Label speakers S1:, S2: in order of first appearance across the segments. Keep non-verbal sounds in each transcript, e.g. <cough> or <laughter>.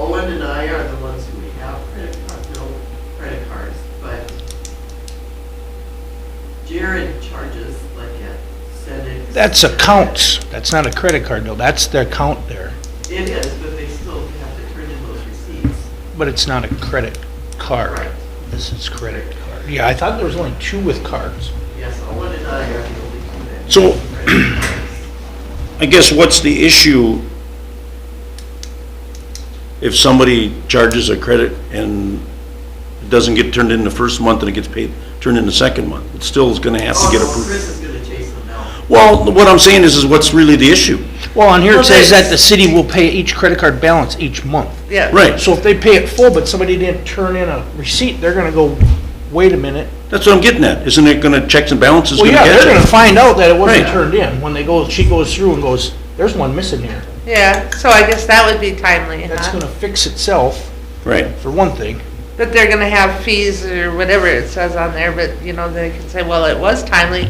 S1: I are the ones who make out credit card, bill credit cards, but Jared charges like at Senate.
S2: That's accounts, that's not a credit card bill, that's their account there,
S1: It is, but they still have to turn in those receipts.
S2: but it's not a credit card.
S1: Right.
S2: This is credit card. Yeah, I thought there was only two with cards.
S1: Yes, Owen and I are the only two that.
S3: So-
S1: use credit
S3: <clears throat>
S1: cards.
S3: I guess what's the issue if somebody charges a credit and it doesn't get turned in the first month and it gets paid, turned in the second month? It still is gonna have to get
S1: Also,
S3: approved.
S1: Oh, Chris is gonna chase them now.
S3: Well, what I'm saying is, is what's really the issue?
S2: Well, on here
S1: Well,
S2: it says
S1: they-
S2: that the city will pay each credit card balance each month.
S1: Yeah.
S3: Right,
S2: So if they pay it full, but somebody didn't turn in a receipt, they're gonna go, wait a minute.
S3: that's what I'm getting at. Isn't it gonna, checks and balances
S2: Well,
S3: gonna
S2: yeah,
S3: catch
S2: they're gonna
S3: it?
S2: find out that it wasn't
S3: Right.
S2: turned in, when they go, she goes through and goes, there's one missing here.
S4: Yeah, so I guess that would be timely,
S2: That's
S4: huh?
S2: gonna fix itself,
S3: Right,
S2: for one thing.
S4: But they're gonna have fees or whatever it says on there, but, you know, they can say, well, it was timely,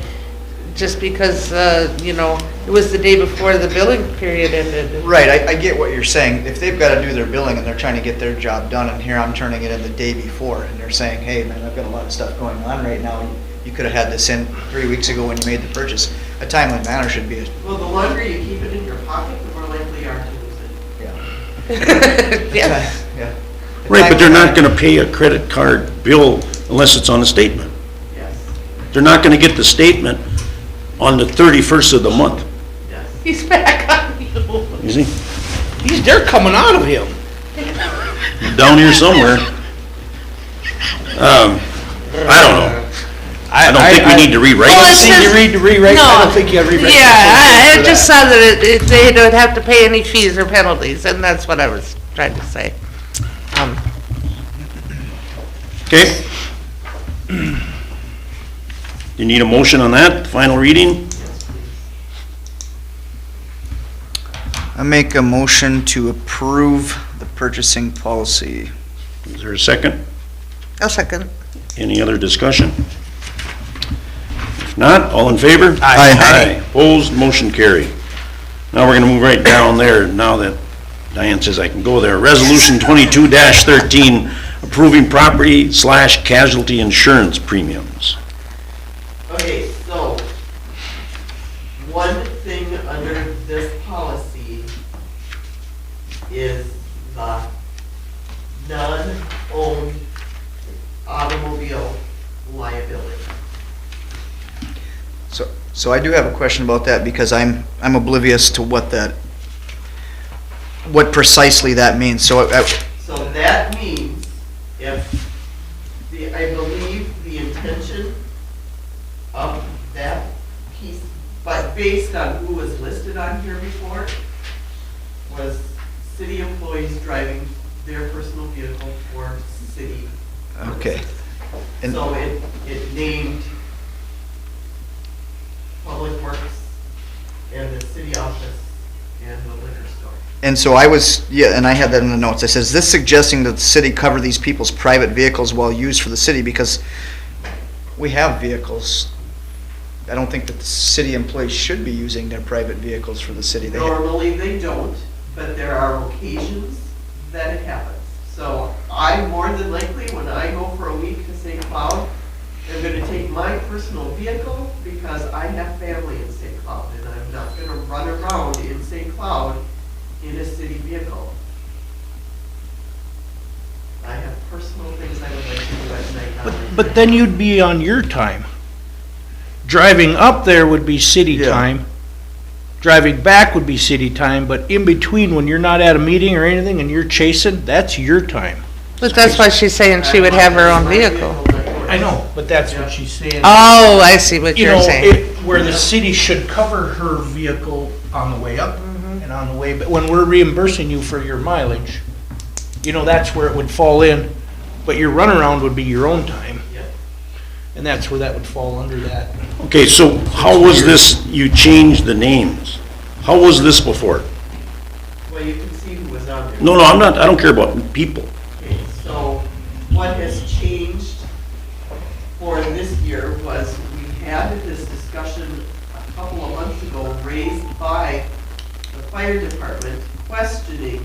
S4: just because, uh, you know, it was the day before the billing period ended. <laughs>
S5: Right, I, I get what you're saying. If they've got to do their billing and they're trying to get their job done, and here I'm turning it in the day before, and they're saying, hey, man, I've got a lot of stuff going on right now. You could have had this in three weeks ago when you made the purchase. A timely manner should be,
S1: Well, the longer you keep it in your pocket, the more likely you are to lose it.
S5: yeah.
S4: Yeah,
S5: Yeah.
S3: right, but they're not gonna pay a credit card bill unless it's on a statement.
S1: Yes,
S3: They're not gonna get the statement on the thirty-first of the month,
S1: yes.
S4: he's back on you.
S3: you see?
S2: He's, they're coming out of him.
S3: down here somewhere. Um, I don't know. I don't think we need to rewrite
S4: Well,
S3: it.
S4: it's-
S2: See, you read to rewrite, I
S4: No.
S2: don't think you have rewrite.
S4: Yeah, I, I just saw that it, it- they don't have to pay any fees or penalties, and that's what I was trying to say. Um,
S3: Okay? You need a motion on that, final reading?
S5: I make a motion to approve the purchasing policy.
S3: Is there a second?
S4: I'll second.
S3: Any other discussion? If not, all in favor?
S5: Aye.
S3: Opposed, motion carried. Now we're gonna move right down there, now that Diane says I can go there. Resolution twenty-two thirteen, approving property slash casualty insurance premiums.
S1: Okay, so, one thing under this policy is the non-owned automobile liability.
S5: So, so I do have a question about that because I'm, I'm oblivious to what that, what precisely that means. So uh, I, I-
S1: So that means if the, I believe the intention of that piece, but based on who was listed on here before, was city employees driving their personal vehicle for city.
S5: okay. And-
S1: So it, it named Public Works and the city office and the liquor store.
S5: And so I was, yeah, and I had that in the notes. I says, this suggesting that the city cover these people's private vehicles while used for the city because we have vehicles. I don't think that the city employees should be using their private vehicles for the city. They have-
S1: Normally, they don't, but there are occasions that it happens. So I, more than likely, when I go for a week to St. Cloud, I'm gonna take my personal vehicle because I have family in St. Cloud, and I'm not gonna run around in St. Cloud in a city vehicle. I have personal things I would like to do at night. not
S2: But,
S1: like
S2: but then you'd be on your time. Driving up there would be city
S5: Yeah.
S2: time. Driving back would be city time, but in between, when you're not at a meeting or anything and you're chasing, that's your time.
S4: But that's why she's saying she would have her own vehicle.
S2: I know, but that's what she's saying.
S4: Oh, I see what
S2: Uh, You
S4: you're
S2: know,
S4: saying.
S2: it, where the city should cover her vehicle on the way up and on the way, but when we're reimbursing you for your mileage, you know, that's where it would fall in, but your runaround would be your own time.
S1: Yeah.
S2: And that's where that would fall under that.
S3: Okay, so how was this, you changed the names? How was this before?
S1: Well, you can see who was on there.
S3: No, no, I'm not, I don't care about people.
S1: Okay, so what has changed for this year was we had this discussion a couple of months ago raised by the fire department questioning